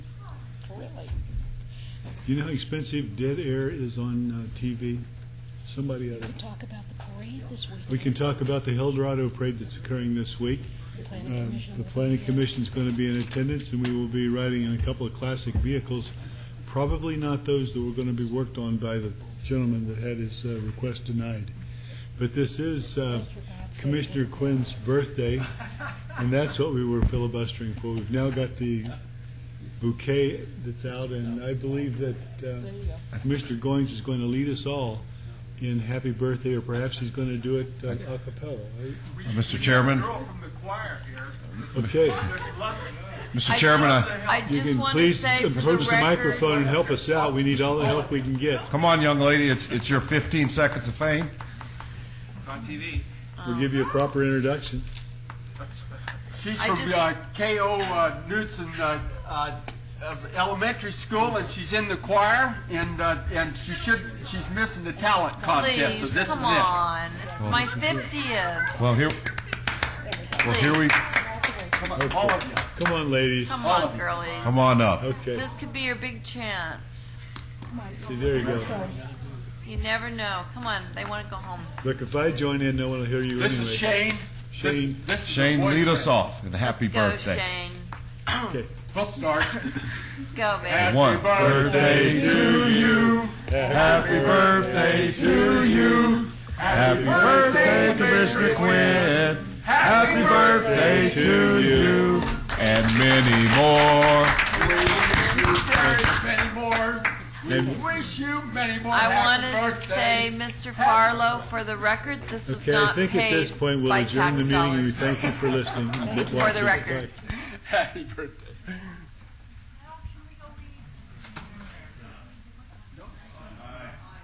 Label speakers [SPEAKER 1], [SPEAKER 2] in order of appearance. [SPEAKER 1] You know how expensive dead air is on uh, TV? Somebody ought to,
[SPEAKER 2] Talk about the parade this week.
[SPEAKER 1] we can talk about the Eldorado parade that's occurring this week.
[SPEAKER 2] The planning
[SPEAKER 1] Um,
[SPEAKER 2] commission.
[SPEAKER 1] The planning commission's going to be in attendance, and we will be riding in a couple of classic vehicles, probably not those that were going to be worked on by the gentleman that had his uh, request denied. But this is uh,
[SPEAKER 2] For God's sake.
[SPEAKER 1] Commissioner Quinn's birthday, and that's what we were filibustering for. We've now got the bouquet that's out, and I believe that uh, Commissioner Goins is going to lead us all in happy birthday, or perhaps he's going to do it uh, a cappella. right?
[SPEAKER 3] Mr. Chairman,
[SPEAKER 4] Girl from the choir here.
[SPEAKER 1] Okay.
[SPEAKER 4] Good luck.
[SPEAKER 3] Mr. Chairman, uh, I,
[SPEAKER 5] I
[SPEAKER 1] You
[SPEAKER 5] just
[SPEAKER 1] can
[SPEAKER 5] want to
[SPEAKER 1] please
[SPEAKER 5] say for the record.
[SPEAKER 1] approach the microphone and help us out. We need all the help we can get.
[SPEAKER 3] come on, young lady, it's, it's your 15 seconds of fame.
[SPEAKER 4] It's on TV.
[SPEAKER 1] We'll give you a proper introduction.
[SPEAKER 4] She's
[SPEAKER 5] I
[SPEAKER 4] from
[SPEAKER 5] just-
[SPEAKER 4] uh, K.O. Uh, Knudsen uh, uh, of elementary school, and she's in the choir, and uh, and she should she's missing the talent contest. so
[SPEAKER 5] Please,
[SPEAKER 4] this
[SPEAKER 5] come
[SPEAKER 4] is
[SPEAKER 5] on.
[SPEAKER 1] Oh,
[SPEAKER 5] It's my 50th.
[SPEAKER 3] Well, here, well, here we,
[SPEAKER 4] it. All of you.
[SPEAKER 1] Come on, ladies.
[SPEAKER 5] Come
[SPEAKER 4] All of
[SPEAKER 5] on,
[SPEAKER 4] you.
[SPEAKER 3] come
[SPEAKER 5] girlies.
[SPEAKER 3] on up.
[SPEAKER 1] Okay,
[SPEAKER 5] This could be your big chance.
[SPEAKER 1] see, there you go.
[SPEAKER 5] You never know. Come on, they want to go home.
[SPEAKER 1] Look, if I join in, no one will hear you anyway.
[SPEAKER 4] This is Shane.
[SPEAKER 1] Shane.
[SPEAKER 4] This, this is
[SPEAKER 3] Shane,
[SPEAKER 4] her
[SPEAKER 3] lead us
[SPEAKER 4] boyfriend.
[SPEAKER 3] off, and happy
[SPEAKER 5] Let's
[SPEAKER 3] birthday.
[SPEAKER 4] We'll start.
[SPEAKER 5] Go, Shane. Go, babe.
[SPEAKER 4] Happy
[SPEAKER 3] One.
[SPEAKER 4] birthday to you.
[SPEAKER 3] Happy birthday to you. Happy birthday, Commissioner Quinn. Happy birthday to you. And many more.
[SPEAKER 4] Many more. We wish you many more
[SPEAKER 5] I want
[SPEAKER 4] happy
[SPEAKER 5] to
[SPEAKER 4] birthdays.
[SPEAKER 5] say, Mr. Farlow, for the record, this was
[SPEAKER 1] Okay, I
[SPEAKER 5] not
[SPEAKER 1] think at
[SPEAKER 5] paid
[SPEAKER 1] this point, we'll
[SPEAKER 5] by
[SPEAKER 1] adjourn the meeting, and
[SPEAKER 5] tax
[SPEAKER 1] we
[SPEAKER 5] dollars.
[SPEAKER 1] thank you for listening.
[SPEAKER 5] For the record.
[SPEAKER 4] happy birthday.